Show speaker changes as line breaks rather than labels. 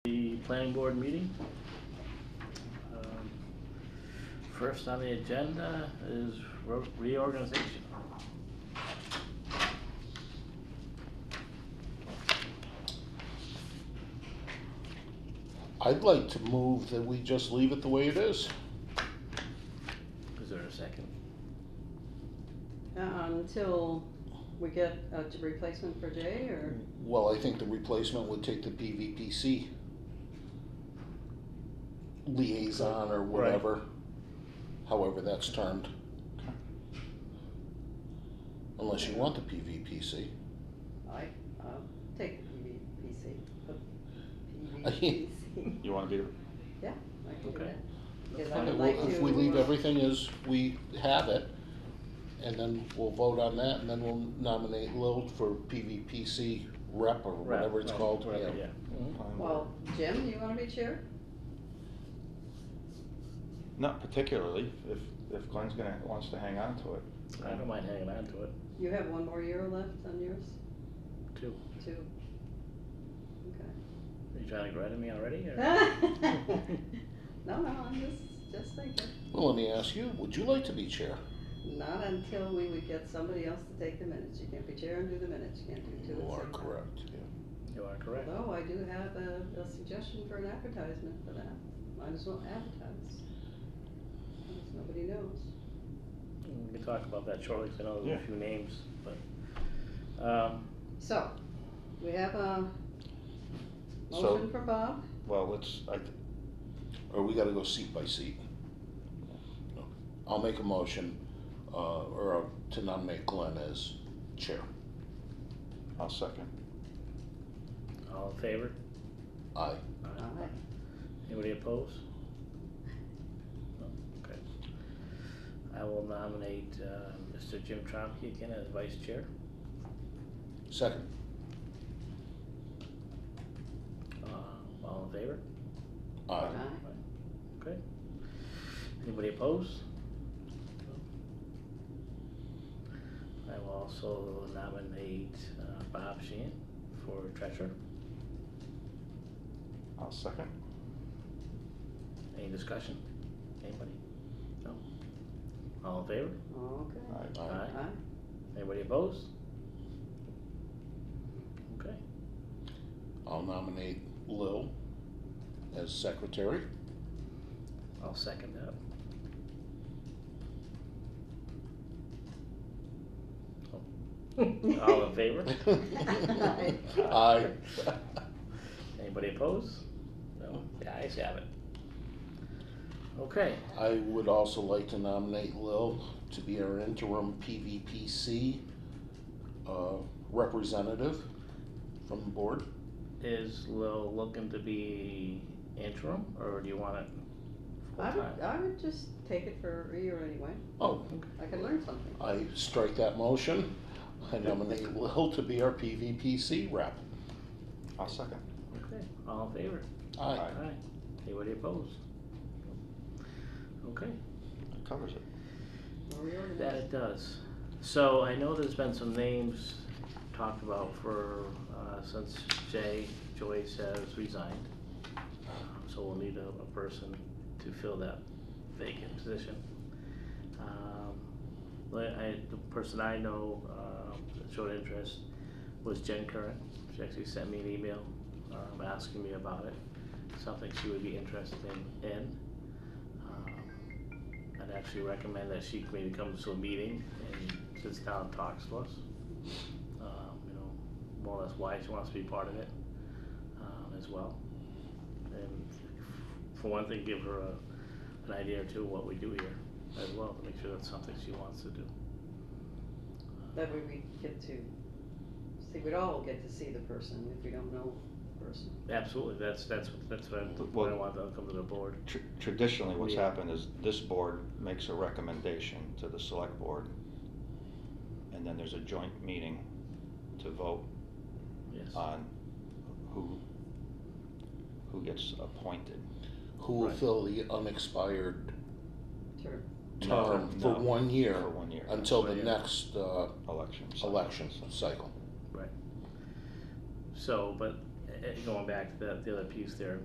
planning board meeting. Um, First on the agenda is ro- reorganization.
I'd like to move that we just leave it the way it is.
Is there a second?
Um, until we get a j- replacement for Jay or,
Well, I think the replacement would take the PVPC liaison or whatever, however that's termed. Unless you want the PVPC.
I, I'll take the PVPC. the PVPC.
You wanna be, the-
Yeah, I can do
Okay.
that. Because I
Okay,
would
well,
like to. uh,
if we leave everything as we have it, and then we'll vote on that, and then we'll nominate Lil for PVPC rep or whatever it's
Right,
called,
whatever,
yeah.
Well, Jim, you wanna be chair?
not particularly, if, if Glenn's gonna, wants to hang on to it.
I don't mind hanging on to it,
You have one more year left on yours,
too.
two. Okay.
Are you trying to get rid of me already, or?
No, no, I'm just, just thinking,
Well, let me ask you, would you like to be chair?
not until we would get somebody else to take the minutes, you can't be chair and do the minutes, you can't do two at
You
the
are
same time.
correct, yeah.
You are correct.
Although Oh, I do have a, a suggestion for an advertisement for that, might as well advertise. Because nobody knows.
We can talk about that shortly, 'cause I know there's a
Yeah.
few names, but, um,
So, we have a
So-
motion for Bob,
Well, let's, I,
Or we gotta go seat by seat? I'll make a motion, uh, or I'll- to nominate Glenn as chair.
I'll second.
all in favor?
Aye.
Aye.
alright,
Anybody opposed? No, Okay. I will nominate, uh, Mr. Jim Tromke again as vice chair.
Second.
Uh, all in favor?
Aye.
aye.
Okay. Anybody opposed? I will also nominate, uh, Bob Sheehan for treasurer.
I'll second.
Any discussion? Anybody? No? All in favor?
okay,
Alright,
Aye.
aye.
Anybody opposed? Okay,
I'll nominate Lil as secretary.
I'll second that. Oh. All in favor?
Aye.
Anybody opposed? No? The ayes have it. Okay,
I would also like to nominate Lil to be our interim PVPC, uh, representative from the board.
is Lil looking to be interim, or do you want it full
I
time?
would, I would just take it for a year anyway,
Oh,
I could learn something.
I strike that motion. I nominate Lil to be our PVPC rep.
I'll second.
Okay, all in favor?
Aye.
Aye.
Aye. Anybody opposed? Okay,
That covers it.
We'll reorganize.
that it does. So I know there's been some names talked about for, uh, since Jay Joyce has resigned. Um, So we'll need a, a person to fill that vacant position. Um, but I, the person I know, uh, that showed interest was Jen Curran. She actually sent me an email, um, asking me about it, something she would be interested in, in. Um, I'd actually recommend that she maybe comes to a meeting and sits down and talks to us. Um, you know, more or less why she wants to be part of it, um, as well. And for one thing, give her a, an idea or two of what we do here as well, to make sure that's something she wants to do.
That way we get to, see, we'd all get to see the person if we don't know the person.
Um, Absolutely, that's, that's, that's what I, what I want to come to the board.
Tr- Traditionally, what's
Yeah.
happened is this board makes a recommendation to the select board, and then there's a joint meeting to vote
Yes,
on who, who gets appointed.
Who will
Right.
fill the unexpired
Sure.
term
No,
for
no,
one year
For one year,
until the
Right.
next, uh,
election. cycle.
election cycle.
uh, so, but eh, eh, going back to the, the other piece there,